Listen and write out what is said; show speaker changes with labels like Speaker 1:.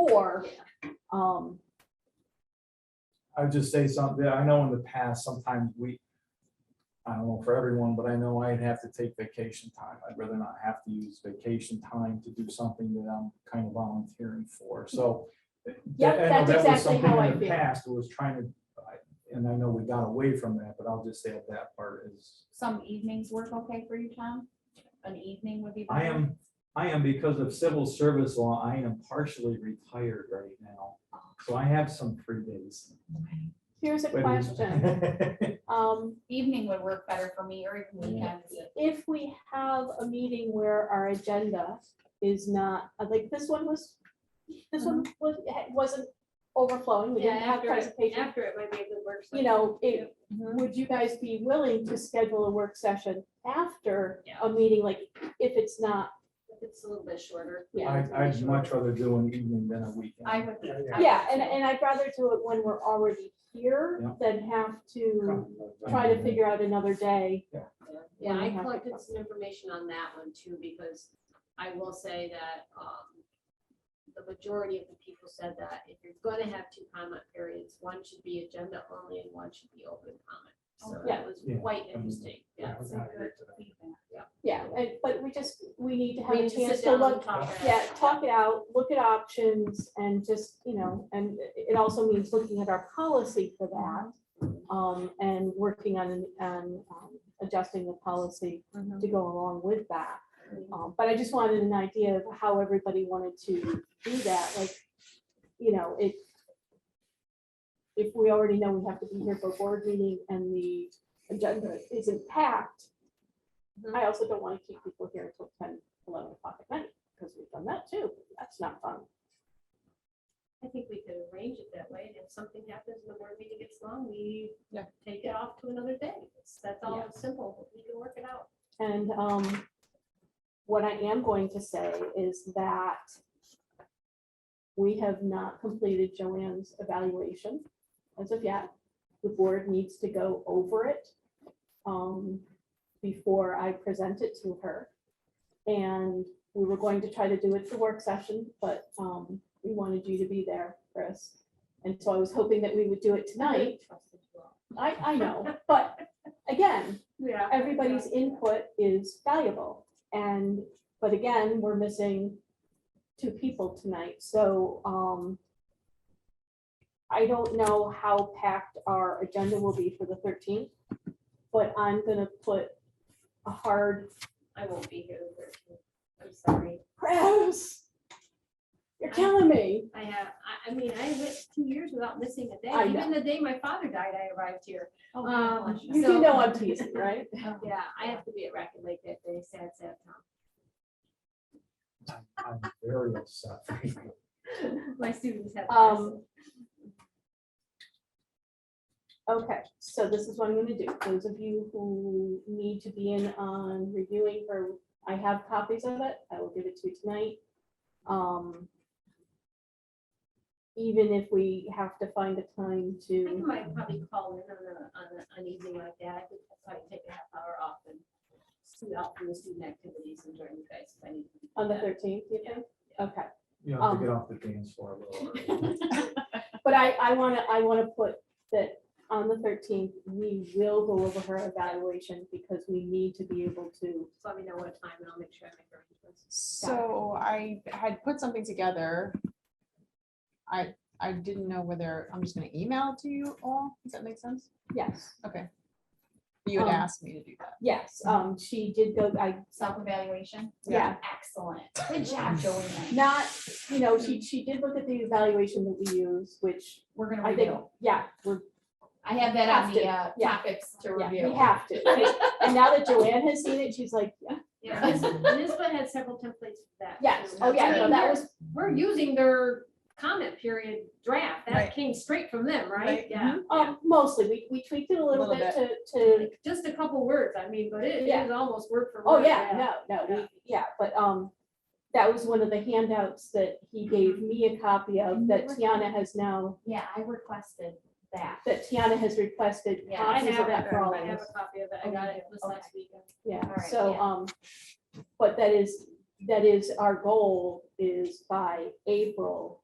Speaker 1: before. Um,
Speaker 2: I would just say something, I know in the past, sometimes we, I don't know for everyone, but I know I'd have to take vacation time. I'd rather not have to use vacation time to do something that I'm kind of volunteering for, so.
Speaker 1: Yep,
Speaker 2: I know
Speaker 1: that's
Speaker 2: that was
Speaker 1: exactly
Speaker 2: something
Speaker 1: how
Speaker 2: in
Speaker 1: I
Speaker 2: the
Speaker 1: feel.
Speaker 2: Past was trying to, I- and I know we got away from that, but I'll just say that that part is,
Speaker 3: Some evenings work okay for you, Tom? An evening would be.
Speaker 2: I
Speaker 3: better?
Speaker 2: am, I am because of civil service law, I am partially retired right now, so I have some free days.
Speaker 1: here's a
Speaker 2: Wait a minute.
Speaker 1: question. Um,
Speaker 3: Evening would work better for me or even weekends.
Speaker 1: if we have a meeting where our agenda is not, uh, like this one was, this one was, wasn't overflowing, we
Speaker 4: Mm-hmm. Yeah,
Speaker 1: didn't have
Speaker 4: after, it-
Speaker 1: presentation.
Speaker 4: after it might be a good work.
Speaker 1: You know, it, would you guys be willing to schedule a work session after a meeting, like if it's not,
Speaker 4: It's a little bit shorter.
Speaker 1: yeah.
Speaker 2: I, I'd much rather do an evening than a weekend.
Speaker 3: I would.
Speaker 5: Yeah,
Speaker 3: I would
Speaker 1: Yeah, and,
Speaker 3: too.
Speaker 1: and I'd rather do it when we're already here
Speaker 2: Yeah.
Speaker 1: than have to
Speaker 2: Try
Speaker 1: try to figure out another day.
Speaker 4: Yeah, I collected some information on that one too, because I will say that, um, the majority of the people said that if you're gonna have two comment periods, one should be agenda only and one should be open comment. So
Speaker 1: Yeah.
Speaker 4: that was
Speaker 2: Yeah.
Speaker 4: quite interesting, yeah.
Speaker 3: That's a good feedback.
Speaker 1: Yeah, and, but we just, we need to have
Speaker 4: We
Speaker 1: a
Speaker 4: need to sit
Speaker 1: chance to
Speaker 4: down and
Speaker 1: look,
Speaker 4: talk about
Speaker 1: yeah,
Speaker 4: it.
Speaker 1: talk it out, look at options and just, you know, and it- it also means looking at our policy for that. Um, and working on, on um, adjusting the policy to go along with that. Um, but I just wanted an idea of how everybody wanted to do that, like, you know, it. If we already know we have to be here for board meeting and the agenda isn't packed. I also don't want to keep people here until 10, 11 o'clock at night, because we've done that too, that's not fun.
Speaker 4: I think we could arrange it that way, and if something happens and the board meeting gets long, we
Speaker 3: Yeah.
Speaker 4: take it off to another day. It's- That's all
Speaker 1: Yeah.
Speaker 4: simple, we can work it out.
Speaker 1: And um, what I am going to say is that we have not completed Joanne's evaluation as of yet. The board needs to go over it um, before I present it to her. And we were going to try to do it for work session, but um, we wanted you to be there, Chris. And so I was hoping that we would do it tonight. I, I know, but again,
Speaker 4: Yeah.
Speaker 1: everybody's input is valuable. And, but again, we're missing two people tonight, so, um, I don't know how packed our agenda will be for the thirteenth, but I'm gonna put a hard
Speaker 4: I won't be here the thirteenth. I'm sorry.
Speaker 1: press. You're killing me.
Speaker 4: I have, I, I mean, I went two years without missing a
Speaker 1: I
Speaker 4: day.
Speaker 1: know.
Speaker 4: Even the day my father died, I arrived here.
Speaker 3: Oh,
Speaker 4: Um,
Speaker 3: gosh. um,
Speaker 1: You do know I'm teasing, right?
Speaker 4: Yeah, I have to be at Racket Lake that day, sad, sad time.
Speaker 2: I'm I'm very upset.
Speaker 4: My students have.
Speaker 1: Um, Okay, so this is what I'm gonna do. Those of you who need to be in on reviewing her, I have copies of it. I will give it to you tonight. Um. Even if we have to find a time
Speaker 4: I think I
Speaker 1: to,
Speaker 4: might probably call in on a, on a, an evening like that. I could probably take a half hour off and see out from the student activities and join you guys if I need. to.
Speaker 1: on the thirteenth, you think? Okay,
Speaker 2: You have to get off the dance floor a little early.
Speaker 1: but I, I wanna, I wanna put that on the thirteenth, we will go over her evaluation because we need to be able to.
Speaker 4: Just let me know what time and I'll make sure I make arrangements.
Speaker 3: So I had put something together. I, I didn't know whether, I'm just gonna email it to you all. Does that make sense?
Speaker 1: Yes,
Speaker 3: You had
Speaker 1: Um,
Speaker 3: asked me to do that.
Speaker 1: yes, um, she did go, I,
Speaker 3: Self-evaluation?
Speaker 1: yeah,
Speaker 3: Excellent. Good job, Joanne.
Speaker 1: not, you know, she, she did look at the evaluation that we use, which
Speaker 3: We're gonna
Speaker 1: I think,
Speaker 3: review.
Speaker 1: yeah, we're,
Speaker 3: I have that on
Speaker 1: Have to,
Speaker 3: the uh,
Speaker 1: yeah.
Speaker 3: topics to
Speaker 1: yeah, we
Speaker 3: review.
Speaker 1: have to. And now that Joanne has seen it, she's like, yeah,
Speaker 4: Yeah, NISBA had several templates for that.
Speaker 1: yes,
Speaker 4: too.
Speaker 1: oh, yeah, no, that was,
Speaker 4: We're using their comment period draft.
Speaker 3: Right.
Speaker 4: That came straight from them, right?
Speaker 3: Right,
Speaker 4: Mm-hmm. Yeah. Oh,
Speaker 1: um, mostly, we, we tweaked it a little
Speaker 3: Little
Speaker 1: bit to, to,
Speaker 4: Like, Just a couple words, I mean, but it
Speaker 1: Yeah.
Speaker 4: is almost word for word.
Speaker 1: oh, yeah, no, no, we, yeah, but, um, that was one of the handouts that he gave me a copy of that Tiana has now,
Speaker 6: Yeah, I requested that.
Speaker 1: that Tiana has requested
Speaker 4: Yeah, I
Speaker 1: copies of
Speaker 4: have,
Speaker 1: that for all
Speaker 4: I
Speaker 1: of
Speaker 4: have
Speaker 1: us.
Speaker 4: a copy of it. I got it this last weekend.
Speaker 1: Yeah,
Speaker 6: right,
Speaker 1: so,
Speaker 6: yeah.
Speaker 1: um, but that is, that is our goal is by April